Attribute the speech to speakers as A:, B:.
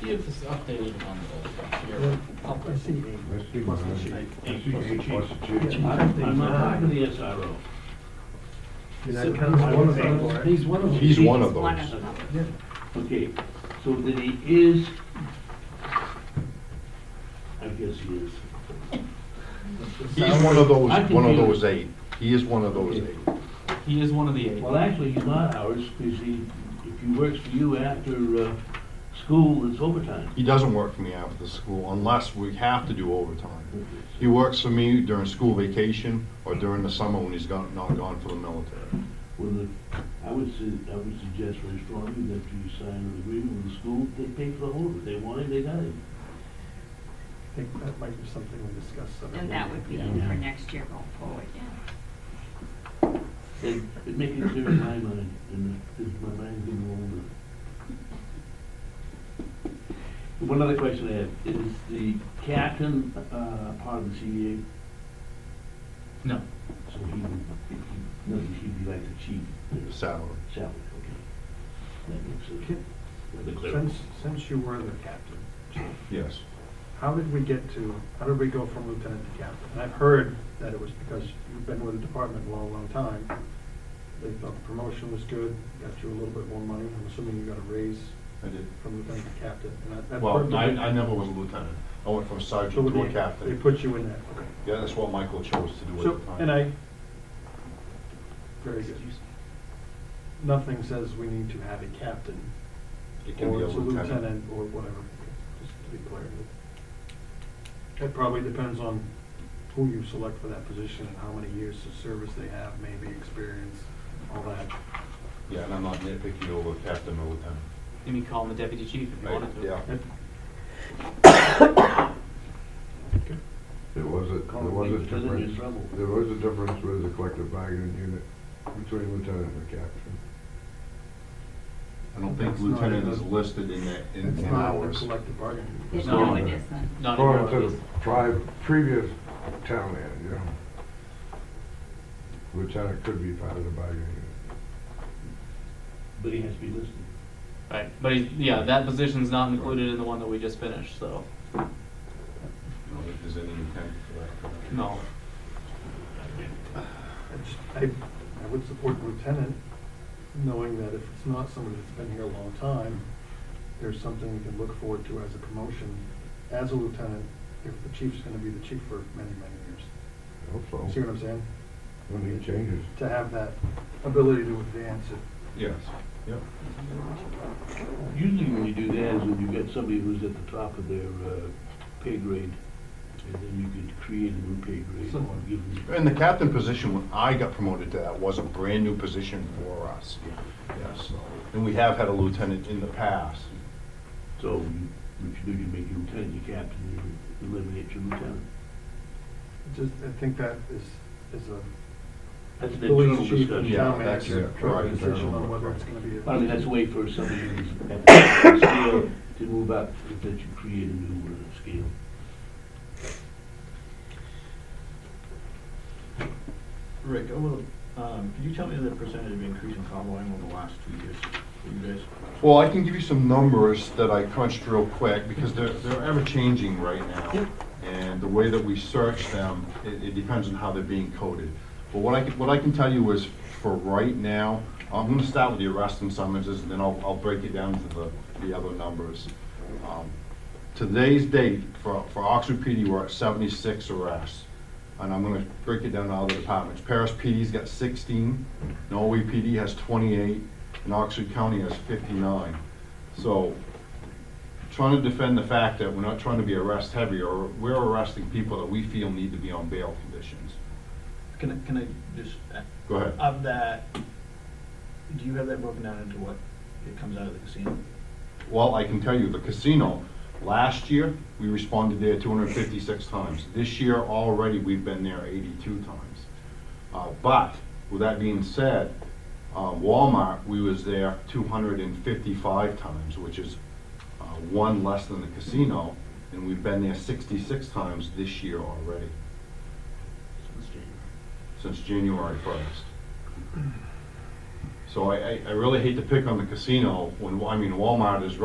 A: see if it's updated on the, your public.
B: Let's see,
C: Mustard
B: Marge.
C: seed.
B: Let's see, mustard seed.
C: Yeah.
D: I'm not part of the SRO.
C: Did
A: So
C: I count as one of those?
D: He's one of them.
B: He's one of
E: One of
B: those.
E: them.
C: Yeah.
D: Okay, so then he is, I guess he is.
B: He's one of those,
D: I'm
B: one of
D: confused.
B: those eight. He is one of those
D: Okay.
B: eight.
A: He is one of the eight.
D: Well, actually, he's not ours, because he, if he works for you after, uh, school, it's overtime.
B: He doesn't work for me after the school unless we have to do overtime. He works for me during school vacation or during the summer when he's gone, not gone for the military.
D: Well, the- I would su- I would suggest very strongly that you sign an agreement with the school, they pay for the whole, of it. they want it, they got it.
C: I think that might be something we discuss. at a
E: And that would
C: meeting.
E: be for next year going forward, yeah.
D: And it makes it clear in my mind, and because my mind's getting older. One other question I have, is the captain, uh, part of the CBA?
A: No.
D: So he, would- if he, no, he'd be like the chief,
B: The
D: the
B: salary.
D: salary, okay. That makes sense.
C: Can-
D: Rather clear.
C: Since, since you were the captain,
B: Yes.
C: how did we get to, how did we go from lieutenant to captain? And I've heard that it was because you've been with the department a long, long time. They thought the promotion was good, got you a little bit more money. I'm assuming you got a raise
B: I did.
C: from lieutenant to captain. and that- that part-
B: Well, I, I never was a lieutenant. I went from
C: So
B: sergeant to a
C: they, they
B: captain.
C: put you in that, okay.
B: Yeah, that's what Michael chose to do
C: So,
B: at the time.
C: and I, very good. Nothing says we need to have a captain
B: It can
C: or
B: be a
C: it's a
B: lieutenant.
C: lieutenant or whatever, just to be clear. That probably depends on who you select for that position and how many years of service they have, maybe experience, all that.
B: Yeah, and I'm not nitpicky over captain or lieutenant.
A: You can call him the deputy chief if you
B: Right,
A: wanted to.
B: yeah.
C: That-
F: There was a, there was a
D: Then you're in
F: difference,
D: trouble.
F: there was a difference with the collective bargaining unit between lieutenant and captain.
B: I don't think
C: That's not
B: lieutenant
C: in
B: is
C: the-
B: listed in that, in
C: It's not
B: in
C: in the
B: hours.
C: collective bargaining.
E: It-
A: No.
E: No, it isn't.
A: Not in
F: According
A: your
F: to the prior, previous town man, you know. Lieutenant could be part of the bargaining unit.
D: But he has to be listed.
A: Right, but he- yeah, that position's not included in the one that we just finished, so,
B: I don't think there's any intent for that.
A: no.
C: I just- I, I would support lieutenant, knowing that if it's not somebody that's been here a long time, there's something we can look forward to as a promotion as a lieutenant, if the chief's gonna be the chief for many, many years.
F: I hope
B: Oh.
F: so.
C: See what I'm saying?
F: When he changes.
C: To have that ability to advance it.
B: Yes, yep.
D: Usually when you do that is when you've got somebody who's at the top of their uh, pay grade, and then you could create a new pay grade.
C: Someone.
D: and give them-
B: And the captain position, when I got promoted to that, was a brand-new position for us. Yes. And we have had a lieutenant in the past.
D: So you- what you do, you make your lieutenant your captain, you eliminate your lieutenant.
C: It Just, I think that is, is a
D: That's an internal
C: police chief and
D: discussion.
B: Yeah.
C: town
B: that's
C: manager
B: it,
C: trying
B: right,
C: to decision on
B: internal.
C: whether it's gonna be. a-
D: I mean, that's a way for somebody who's at the scale to move up, that you create a new uh, scale.
G: Rick, I will, um, could you tell me the percentage of increase in call volume over the last two years for you guys?
B: Well, I can give you some numbers that I crunched real quick, because they're, they're ever-changing right now. And the way that we search them, it, it depends on how they're being coded. But what I can, what I can tell you is, for right now, I'm gonna start with the arrest and summonses, and then I'll, I'll break it down to the, the other numbers. Um, Today's date for, for Oxford PD, we're at seventy-six arrests. And I'm gonna break it down to other departments. Paris PD's got sixteen, Norway PD has twenty-eight, and Oxford County has fifty-nine. So, trying to defend the fact that we're not trying to be arrest heavy, or we're arresting people that we feel need to be on bail conditions.
G: Can I, can I just, uh,
B: Go ahead.
G: of that, do you have that broken down into what it comes out of the casino?
B: Well, I can tell you, the casino, last year, we responded there two hundred and fifty-six times. This year already, we've been there eighty-two times. Uh, but, with that being said, uh, Walmart, we was there two hundred and fifty-five times, which is, uh, one less than the casino, and we've been there sixty-six times this year already,
G: Since January.
B: since January first. So I, I, I really hate to pick on the casino, when, I mean, Walmart is